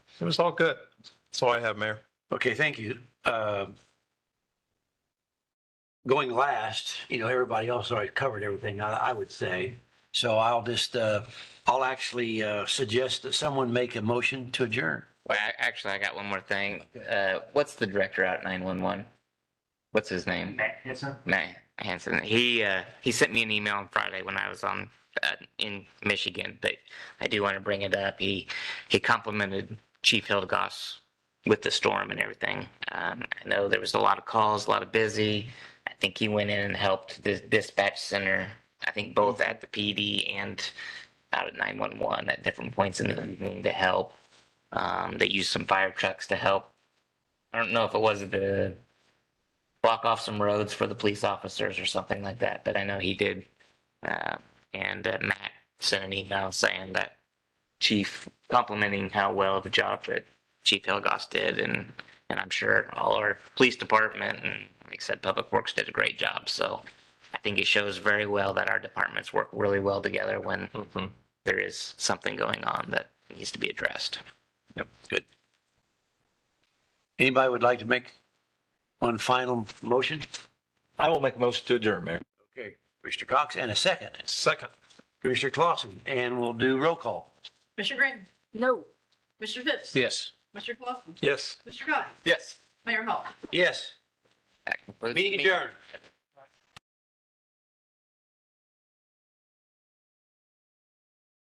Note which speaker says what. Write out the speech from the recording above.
Speaker 1: It was all good. That's all I have, Mayor.
Speaker 2: Okay, thank you. Um, Going last, you know, everybody else already covered everything, I, I would say. So I'll just, uh, I'll actually, uh, suggest that someone make a motion to adjourn.
Speaker 3: Well, I- actually, I got one more thing. Uh, what's the director out nine one one? What's his name? Matt Hanson. Matt Hanson. He uh, he sent me an email on Friday when I was on uh, in Michigan, but I do want to bring it up. He he complimented Chief Hildegoss with the storm and everything. Um, I know there was a lot of calls, a lot of busy. I think he went in and helped the dispatch center. I think both at the PD and out at nine one one at different points in the evening to help. Um, they used some fire trucks to help. I don't know if it was to block off some roads for the police officers or something like that, but I know he did. Uh, and uh, Matt sent an email saying that Chief complimenting how well the job that Chief Hilgoss did, and and I'm sure all our police department and like I said, Public Works did a great job. So I think it shows very well that our departments work really well together when there is something going on that needs to be addressed.
Speaker 2: Good. Anybody would like to make one final motion?
Speaker 1: I will make a motion to adjourn, Mayor.
Speaker 2: Okay, Commissioner Cox, and a second,
Speaker 1: Second.
Speaker 2: Commissioner Clausen, and we'll do roll call.
Speaker 4: Mr. Green? No. Mr. Phipps?
Speaker 2: Yes.
Speaker 4: Mr. Clausen?
Speaker 1: Yes.
Speaker 4: Mr. Guy?
Speaker 1: Yes.
Speaker 4: Mayor Hall?
Speaker 2: Yes,
Speaker 3: That concludes the
Speaker 2: meeting adjourned.